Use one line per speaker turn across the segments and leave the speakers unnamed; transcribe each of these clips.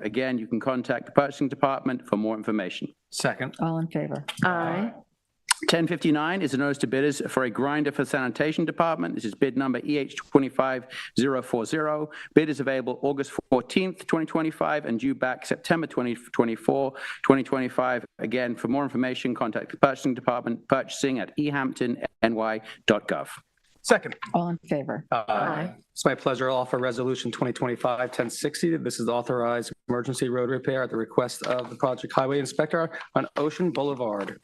Again, you can contact the purchasing department for more information.
Second.
All in favor?
Aye.
1059 is a notice to bidders for a grinder for sanitation department. This is bid number E EH25040. Bid is available August 14th, 2025, and due back September 2024, 2025. Again, for more information, contact the purchasing department, purchasing at e ehamptonny.gov.
Second.
All in favor?
Aye. It's my pleasure to offer Resolution 2025-1060. This is authorized emergency road repair at the request of the project highway inspector on Ocean Boulevard.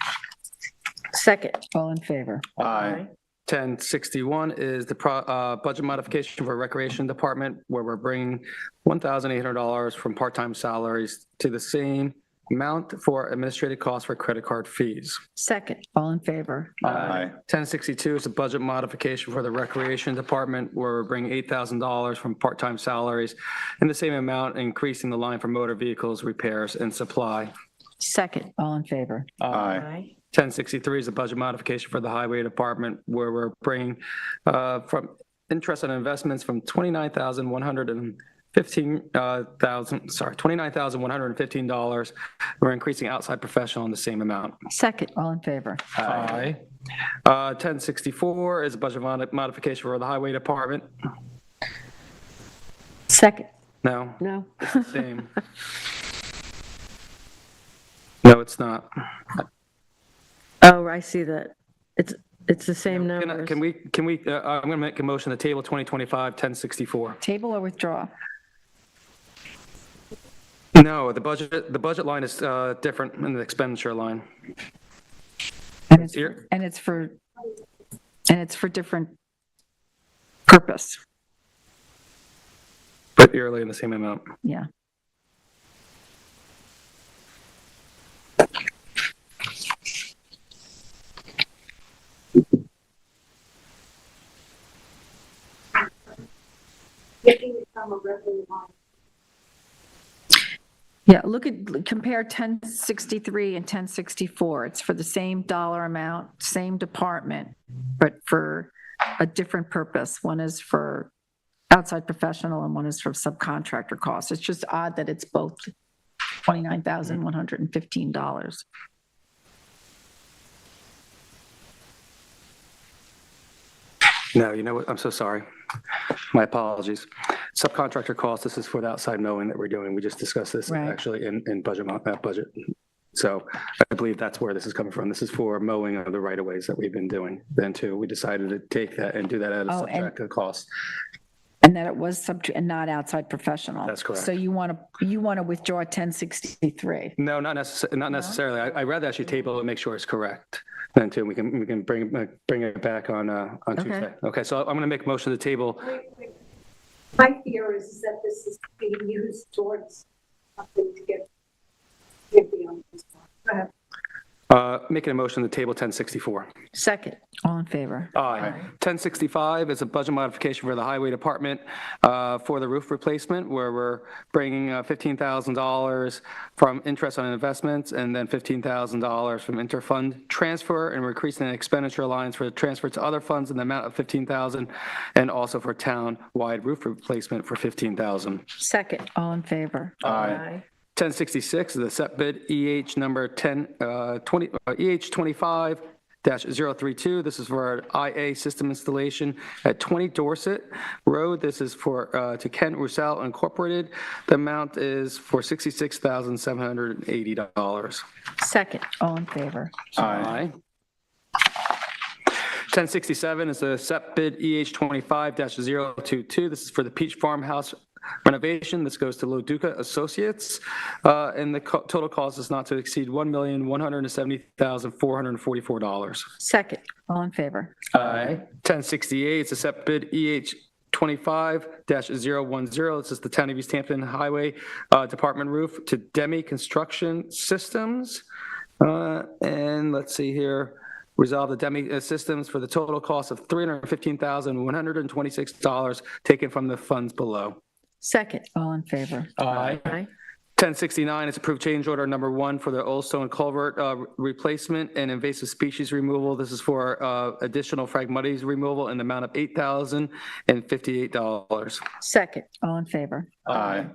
Second.
All in favor?
Aye. 1061 is the pro- uh, budget modification for Recreation Department, where we're bringing $1,800 from part-time salaries to the same amount for administrative costs for credit card fees.
Second.
All in favor?
1062 is a budget modification for the Recreation Department, where we're bringing $8,000 from part-time salaries and the same amount, increasing the line for motor vehicles, repairs, and supply.
Second.
All in favor?
Aye.
1063 is a budget modification for the Highway Department, where we're bringing uh, from interest on investments from 29,100 and 15,000, sorry, $29,115. We're increasing outside professional in the same amount.
Second.
All in favor?
Aye. Uh, 1064 is a budget modi- modification for the Highway Department.
Second.
No,
No.
same. No, it's not.
Oh, I see that. It's, it's the same
Can I-
numbers.
can we, can we, uh, I'm going to make a motion to table 2025-1064.
Table or withdraw?
No, the budget, the budget line is uh, different than the expenditure line.
And it's,
Here.
and it's for, and it's for different purpose.
But yearly in the same amount.
Yeah. Yeah, look at, compare 1063 and 1064. It's for the same dollar amount, same department, but for a different purpose. One is for outside professional and one is for subcontractor costs. It's just odd that it's both $29,115.
No, you know what? I'm so sorry. My apologies. Subcontractor costs, this is for the outside mowing that we're doing. We just discussed this
Right.
actually in, in budget, mo- uh, budget. So I believe that's where this is coming from. This is for mowing of the right of ways that we've been doing. Then too, we decided to take that and do that at a
Oh, and-
subtracted cost.
And that it was sub, and not outside professional.
That's correct.
So you want to, you want to withdraw 1063.
No, not necessarily, not necessarily. I, I'd rather actually table it and make sure it's correct. Then too, we can, we can bring, uh, bring it back on, uh, on Tuesday. Okay, so I'm going to make a motion to table.
My fear is that this is being used towards something to get, get beyond this one. Go ahead.
Uh, making a motion to table 1064.
Second.
All in favor?
Aye. 1065 is a budget modification for the Highway Department uh, for the roof replacement, where we're bringing uh, $15,000 from interest on investments and then $15,000 from interfund transfer, and we're increasing the expenditure lines for the transfer to other funds in the amount of 15,000, and also for town-wide roof replacement for 15,000.
Second.
All in favor?
Aye.
1066 is the set bid EH number 10, uh, 20, uh, EH 25 dash 032. This is for our IA system installation at 20 Dorset Road. This is for, uh, to Kent Roussel Incorporated. The amount is for $66,780.
Second.
All in favor?
Aye. 1067 is the set bid EH 25-022. This is for the Peach Farmhouse renovation. This goes to Loduca Associates, uh, and the co- total cost is not to exceed $1,170,444.
Second.
All in favor?
Aye. 1068 is a set bid EH 25-010. This is the Town of East Hampton Highway uh, Department roof to Demi Construction Systems. Uh, And let's see here, resolve the Demi uh, Systems for the total cost of $315,126 taken from the funds below.
Second.
All in favor?
Aye.
Aye.
1069 is approved change order number one for the Old Stone Culvert uh, replacement and invasive species removal. This is for uh, additional fragmites removal in the amount of $8,058.
Second.
All in favor?
Aye.